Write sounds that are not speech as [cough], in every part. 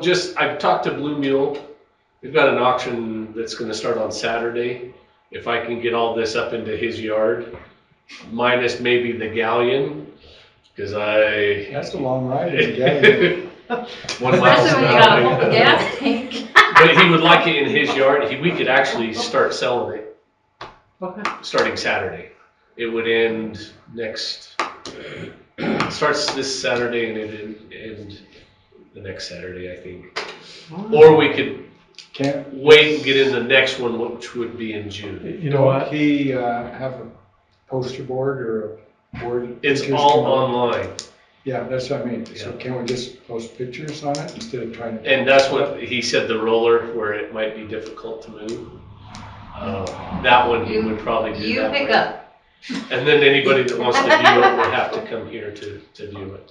Just, I've talked to Blue Mule. We've got an auction that's gonna start on Saturday. If I can get all this up into his yard, minus maybe the galleon, cause I. That's a long ride in the day. [laughs] One mile Especially an when you got a whole hour. gas tank. But he would like it in his yard. He, we could actually start selling it, starting Saturday. It would end next, starts this Saturday and it end, end the next Saturday, I think. Or we could Can't, wait and get in the next one, which would be in June. You know what? he, uh, have a poster board or a board? that It's pictures all come up? online, Yeah, that's what I mean. So Yeah. can we just post pictures on it instead of trying to? and that's what he said, the roller, where it might be difficult to move. Uh, That one he would probably do You that pick way. up. And then anybody that wants to view it would have to come here to, to view it.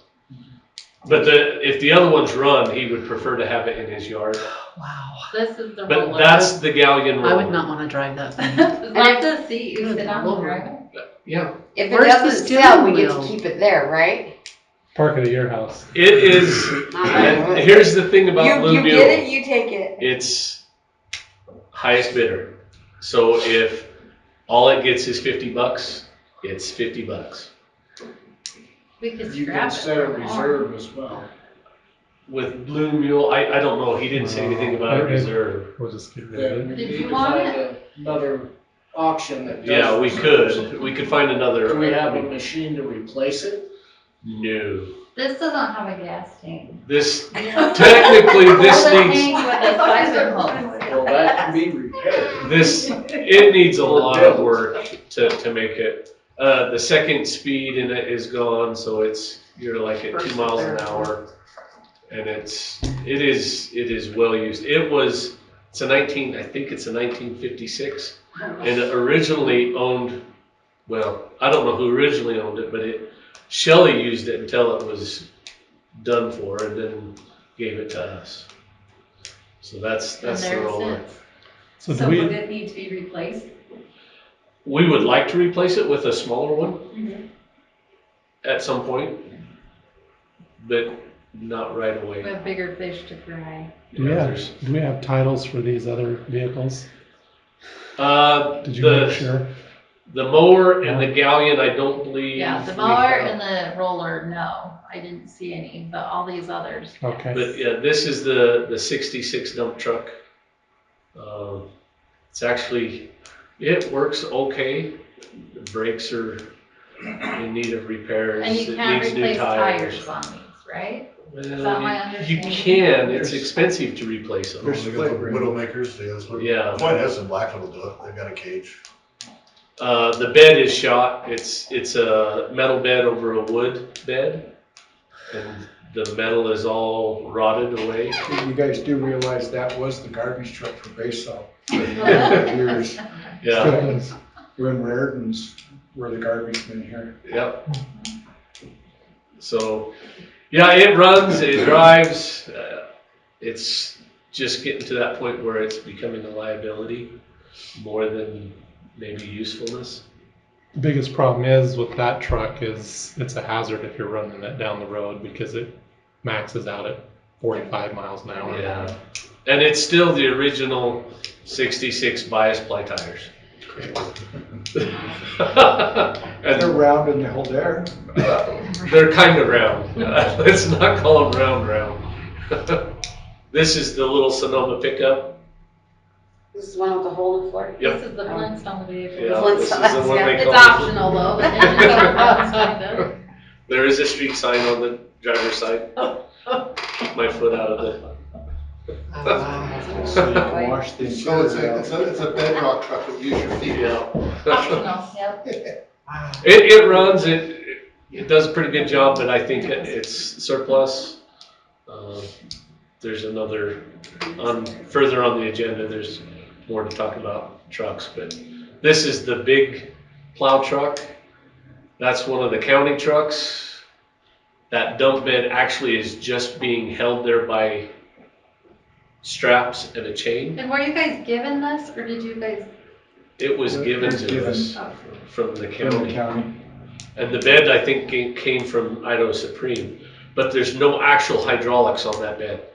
But the, if the other one's run, he would prefer to have it in his yard, Wow. This is the roller. but that's the galleon I would roller. not want to drive [laughs] that thing. Like the seat you Good sit on and lord. drive it. Yeah, If it Where's the doesn't sell, we steering get to wheel? keep it there, right? Park it at your house. it is, and here's the thing about You, Blue you Mule. get it, you take it. It's highest bidder. So if all it gets is fifty bucks, it's fifty bucks. We could You can scrap it. set a for more. reserve as well. With Blue Mule, I, I don't know, he didn't say anything about a Okay. reserve. We'll just get rid Then of it. we Did need you to want find Another auction that does. Yeah, we reserves. could, we could find Do we have a another. machine to replace it? No, This doesn't have a gas tank. this, technically, [laughs] this Roller needs, tank With a siphon hose. Well, that can be repaired. this, it needs a lot of work to, to make it. Uh, the second speed in it is gone, so it's, you're like at two miles an hour. and it's it is it is well used. It was it's a 19 I think it's a 1956 and it originally owned well I don't know who originally owned it but it Shelley used it until it was done for and then gave it to us. So that's And that's the there's role. it. So do we, it need to be replaced? We would like to replace it with a smaller one Mhm. at some point, but not right away. We have bigger fish to fry. You know, Yeah. there's- do we have titles for these other vehicles? Uh, Did you the make sure? The mower and the galleon, I don't believe. Yeah, the we mower have. and the roller, no, I didn't see any, but all these others. yeah. Okay. But yeah, this is the, the sixty-six dump truck. Um, It's actually, it works okay. The Brakes are in need of repairs. And you It can't needs new replace tires on these, right? that my Well, you- You understanding? can, it's expensive to replace them. There's There's the the playground. Widowmakers, they have. Yeah. Point is, in Blackville, they'll do it. they've got a cage. Uh, the bed is shot, it's, it's a metal bed over a wood bed. And the metal is all rotted away. You guys do realize that was the garbage truck for Basalt for a Yeah. number of years. Yeah. Still is. When Raritan's were the garbage men here. Yep. So, yeah, it runs, it drives. Uh, it's just getting to that point where it's becoming a liability more than maybe usefulness. The biggest problem is with that truck is it's a hazard if you're running it down the road because it maxes out at 45 miles an hour. Yeah. And it's still the original 66 bias ply tires. [laughs] and They're they're, round and they hold air. they're kind of round. [laughs] Let's not call them round, round. [laughs] this is the little Sonoma pickup. This is one with the hole in the floor. Yep. This is the Flintstone vehicle. Yeah, this is the Flintstones, one yeah. they It's call- optional [laughs] though, but then it's a [laughs] Flintstone. There is a street sign on the driver's side. My foot out of the, So you can wash the So it's a, interior it's out. a, it's a bedrock truck, but use your feet. [laughs] yeah. optional, yep. It, it runs, it, it does a pretty good job, but I think it- it's surplus. Uh, There's another, on, further on the agenda, there's more to talk about trucks, but this is the big plow truck. That's one of the county trucks. That dump bed actually is just being held there by straps and a chain. And were you guys given this or did you guys? oh, It was given to Given. us from the From the county. county. And the bed, I think, ca- came from Idaho Supreme, but there's no actual hydraulics on that bed.